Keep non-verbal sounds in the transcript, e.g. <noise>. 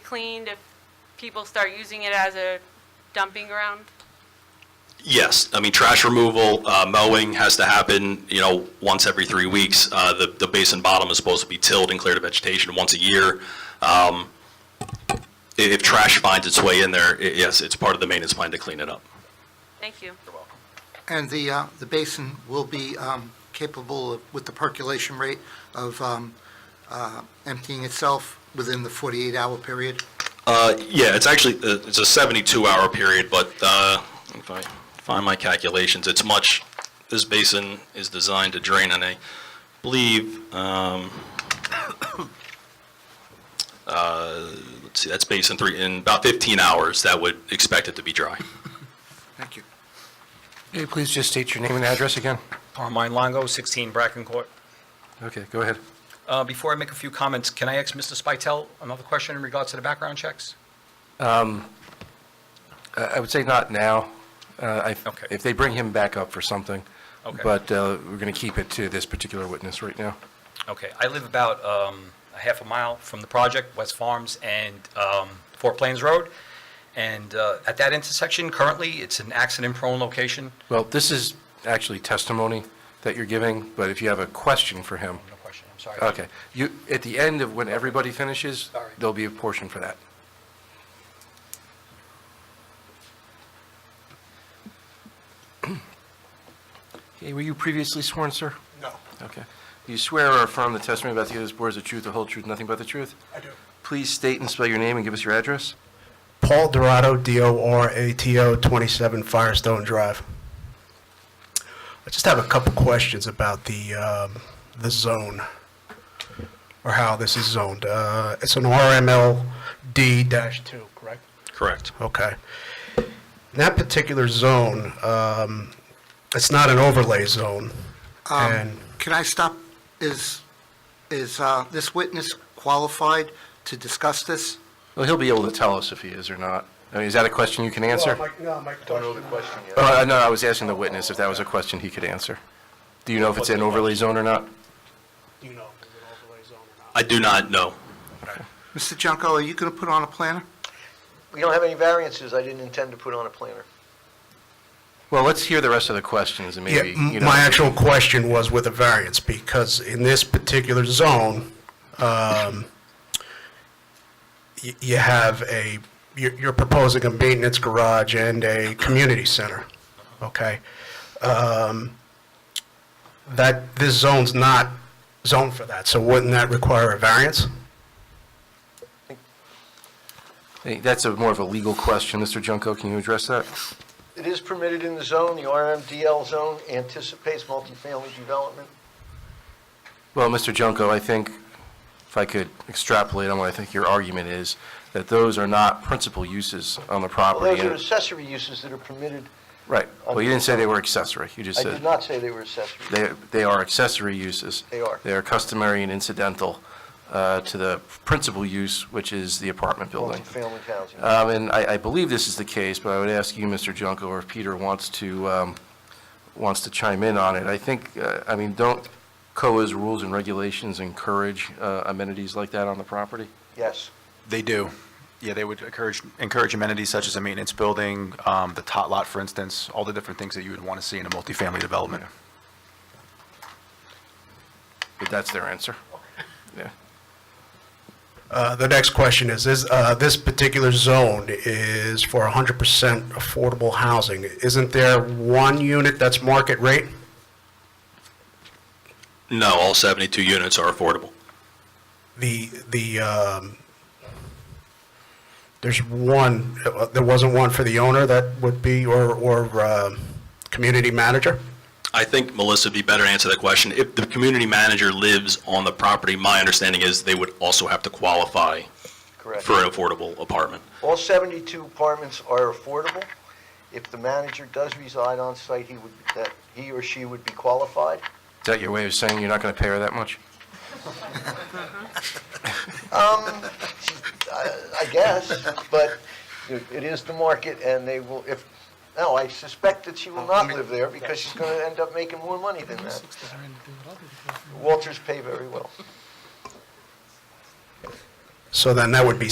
cleaned if people start using it as a dumping ground? Yes, I mean, trash removal, uh, mowing has to happen, you know, once every three weeks. Uh, The the basin bottom is supposed to be tilled and cleared of vegetation once a year. Um, i- If trash finds its way in there, i- yes, it's part of the maintenance plan to clean it up. Thank you. And the, uh, the basin will be um, capable of- with the percolation rate of um, uh, emptying itself within the 48-hour period? Uh, Yeah, it's actually, uh, it's a 72-hour period, but uh, if I find my calculations, it's much, this basin is designed to drain, and I believe, um, <coughs> uh, let's see, that's basin three, in about 15 hours, that would expect it to be dry. Thank you. Hey, Please just state your name and address again. Carmine Longo, 16 Bracken Court. Okay, go ahead. Uh, Before I make a few comments, can I ask Mr. Spital another question in regards to the background checks? Uh, I would say not now. Uh, I- Okay. If they bring him back up for something. Okay. But uh, we're going to keep it to this particular witness right now. Okay, I live about um, a half a mile from the project, West Farms and um, Four Plains Road, and uh, at that intersection, currently, it's an accident-prone location. Well, this is actually testimony that you're giving, but if you have a question for him, No question, I'm sorry. okay. You, at the end of when everybody finishes, Sorry. there'll be a portion for that. <clears throat> Okay, were you previously sworn, sir? No, Okay. Do you swear or affirm the testimony about to give this board is the truth, the whole truth, nothing but the truth? I do. Please state and spell your name and give us your address. Paul Dorato, D-O-R-A-T-O, 27 Firestone Drive. I just have a couple questions about the, um, the zone, or how this is zoned. Uh, It's an RMLD-2, correct? Correct. Okay. In that particular zone, um, it's not an overlay zone, Um, and Can I stop? Is, is uh, this witness qualified to discuss this? Well, he'll be able to tell us if he is or not. I mean, is that a question you can answer? no, my Uh, no, I was asking the witness if that was a question he could answer. Do you know if it's an overlay zone or not? Do you know if it's an overlay zone or not? I do not know. Mr. Junko, are you going to put on a planner? We don't have any variances. I didn't intend to put on a planner. Well, let's hear the rest of the questions and Yeah, maybe, you m- know. my actual question was with a variance, because in this particular zone, um, y- you have a, you're you're proposing a maintenance garage and a community center, okay? Um, That, this zone's not zoned for that, so wouldn't that require a variance? Hey, That's a more of a legal question. Mr. Junko, can you address that? It is permitted in the zone. The RMDL zone anticipates multifamily development. Well, Mr. Junko, I think, if I could extrapolate on what I think your argument is, that those are not principal uses on the Well, property. those are and- accessory uses that are permitted. Right. Well, you didn't say they were accessory. You just I said did not say they were accessory. they, they are accessory uses. They are. They are customary and incidental uh, to the principal use, which is the apartment building. Multifamily housing. Um, And I, I believe this is the case, but I would ask you, Mr. Junko, or if Peter wants to, um, wants to chime in on it. I think, uh, I mean, don't COA's rules and regulations encourage uh, amenities like that on the property? Yes. They do. Yeah, they would encourage, encourage amenities such as a maintenance building, um, the tot lot, for instance, all the different things that you would want to see in a multifamily development. But that's their answer. Yeah. Uh, The next question is, is, uh, this particular zone is for 100% affordable housing. Isn't there one unit that's market rate? No, all 72 units are affordable. the, the, um, there's one, there wasn't one for the owner that would be, or, or, um, community manager? I think Melissa would be better to answer that question. If the community manager lives on the property, my understanding is they would also have to qualify Correct. for an affordable apartment. All 72 apartments are affordable. If the manager does reside on site, he would, that, he or she would be qualified. Is that your way of saying you're not going to pay her that much? I guess, but it is the market, and they will, if, no, I suspect that she will not live there, because she's going to end up making more money than that. Walters pay very well. So then that would be